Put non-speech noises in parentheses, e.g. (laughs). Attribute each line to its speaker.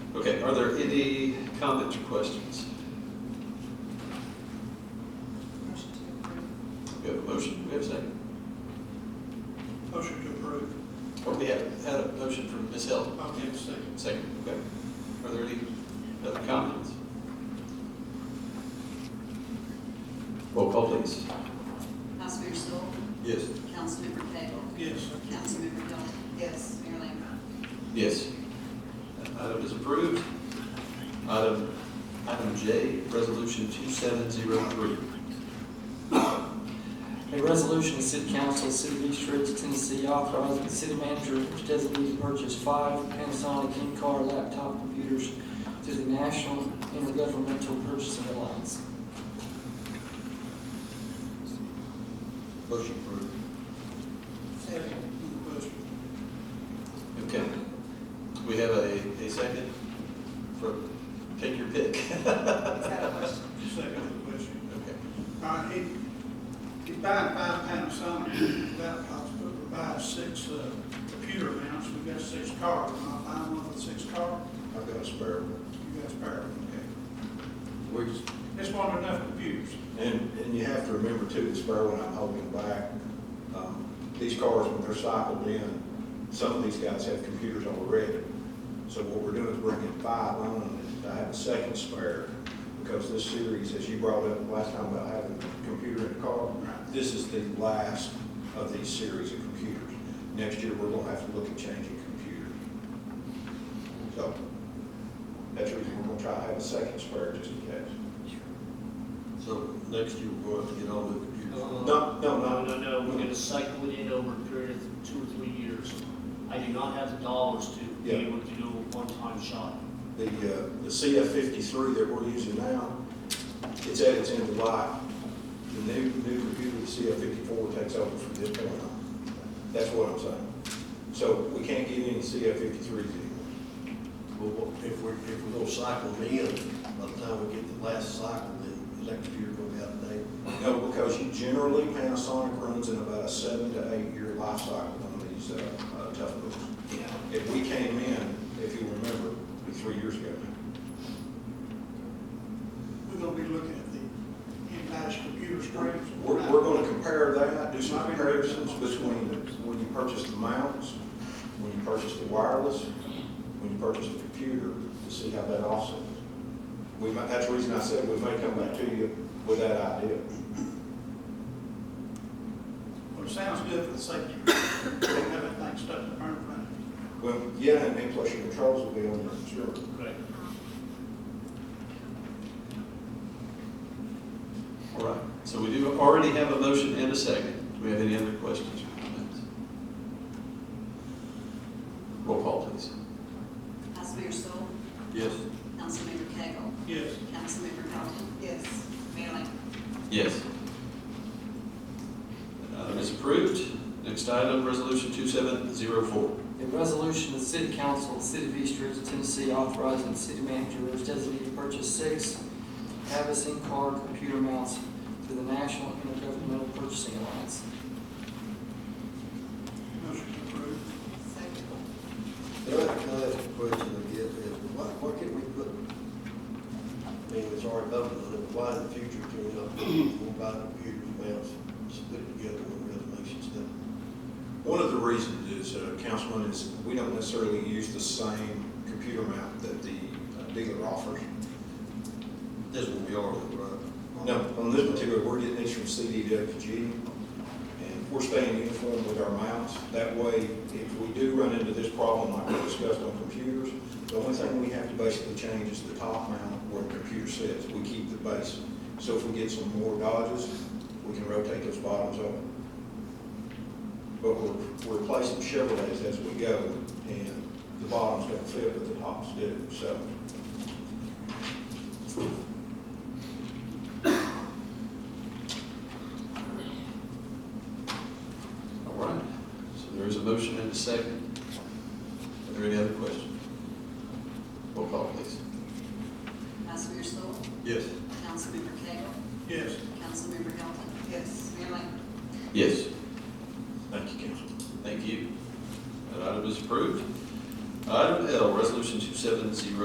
Speaker 1: Okay, are there any comments or questions?
Speaker 2: Motion to approve.
Speaker 1: We have a motion, we have a second.
Speaker 3: Motion to approve.
Speaker 1: Or Oh, we have had a motion from Ms. Held,
Speaker 3: Okay, second.
Speaker 1: second, okay. Are there any other comments? Roll call, please.
Speaker 4: Vice Mayor Stoll,
Speaker 1: Yes.
Speaker 4: Councilmember Cagle,
Speaker 3: Yes.
Speaker 4: Councilmember Dolan,
Speaker 2: Yes.
Speaker 4: Mayor Lambert.
Speaker 1: Yes. That Item is approved. Item, item J, resolution two seven zero three.
Speaker 5: A resolution, of the City Council, of the City of East Ridge, Tennessee, authorizing the city manager to designate to purchase five Panasonic in-car laptop computers through the National Intergovernmental Purchasing Alliance.
Speaker 1: Motion approved.
Speaker 3: Second. Question.
Speaker 1: Okay. We have a, a second for, take your pick. (laughs)
Speaker 2: Is that a question?
Speaker 3: Second question.
Speaker 1: Okay.
Speaker 3: All right, he, he buying five Panasonic laptops, but we buy six, uh, computer mounts, we got six cars, am I buying one with six cars?
Speaker 1: I've got a spare one.
Speaker 3: You guys bear with
Speaker 6: We just,
Speaker 3: me, okay? It's one enough computers.
Speaker 6: and, and you have to remember too, the spare one I'm holding back, um, these cars, when they're cycled in, some of these guys have computers already. So what we're doing is bringing five on, and I have a second spare, because this series, as you brought up last time about having a computer in the car,
Speaker 3: Right.
Speaker 6: this is the last of these series of computers. Next year, we're gonna have to look at changing computers. So, that's the reason we're gonna try to have a second spare just in case.
Speaker 1: So next year we're going to get all the computers.
Speaker 6: No, no,
Speaker 7: Uh, No,
Speaker 6: no,
Speaker 7: no, no, we're gonna cycle it in over a period of two or three years. I do not have the dollars to be
Speaker 6: Yeah.
Speaker 7: able to do a one-time shot.
Speaker 6: the, uh, the CF fifty-three that we're using now, it's at its end of life. The new, new computer, the CF fifty-four takes over from this point on. That's what I'm saying. So we can't get any CF fifty-threes anymore.
Speaker 8: Well, if we're, if we're gonna cycle them in, by the time we get the last cycle, then the next year gonna be out of date.
Speaker 6: No, because you generally, Panasonic runs in about a seven to eight-year life cycle on these, uh, uh, tough books. If we came in, if you remember, three years ago now.
Speaker 3: We're gonna be looking at the in-house computer screens.
Speaker 6: We're, we're gonna compare that, do some comparisons between when you purchase the mounts, when you purchase the wireless, when you purchase the computer, to see how that offsets. We might, that's the reason I said we may come back to you with that idea.
Speaker 3: Well, it sounds good for the safety. (coughs) Don't have anything stuck in the burn ban.
Speaker 6: Well, yeah, and then plus your controls will be on there, sure.
Speaker 7: Correct.
Speaker 1: All right, so we do already have a motion and a second. Do we have any other questions or comments? Roll call, please.
Speaker 4: Vice Mayor Stoll,
Speaker 1: Yes.
Speaker 4: Councilmember Cagle,
Speaker 3: Yes.
Speaker 4: Councilmember Dolan,
Speaker 2: Yes.
Speaker 4: Mayor Lambert.
Speaker 1: Yes. That Item is approved. Next item, resolution two seven zero four.
Speaker 5: A resolution, of the City Council, of the City of East Ridge, Tennessee, authorizing the city manager to designate to purchase six Havas in-car computer mounts through the National Intergovernmental Purchasing Alliance.
Speaker 3: Motion approved.
Speaker 2: Second.
Speaker 8: The other kind of question I get is, why, why can't we put, I mean, it's already voted on it, why in the future can we not, we'll buy computers, mouse, split it together on resolution stuff?
Speaker 6: One of the reasons is, uh, Councilman, is we don't necessarily use the same computer mount that the uh, dealer offers.
Speaker 8: This will be ours, right?
Speaker 6: No, on this particular, we're getting these from CDWG, and we're staying uniform with our mounts. That way, if we do run into this problem like we discussed on computers, the only thing we have to basically change is the top mount where the computer sits. We keep the base. So if we get some more dodges, we can rotate those bottoms up. But we're we're replacing Chevrolets as we go, and the bottoms don't fit, but the tops do, so.
Speaker 1: All right, so there is a motion and a second. Are there any other questions? Roll call, please.
Speaker 4: Vice Mayor Stoll,
Speaker 1: Yes.
Speaker 4: Councilmember Cagle,
Speaker 3: Yes.
Speaker 4: Councilmember Dolan,
Speaker 2: Yes.
Speaker 4: Mayor Lambert.
Speaker 1: Yes.
Speaker 6: Thank you, Council.
Speaker 1: Thank you. That item is approved. Item L, resolution two seven zero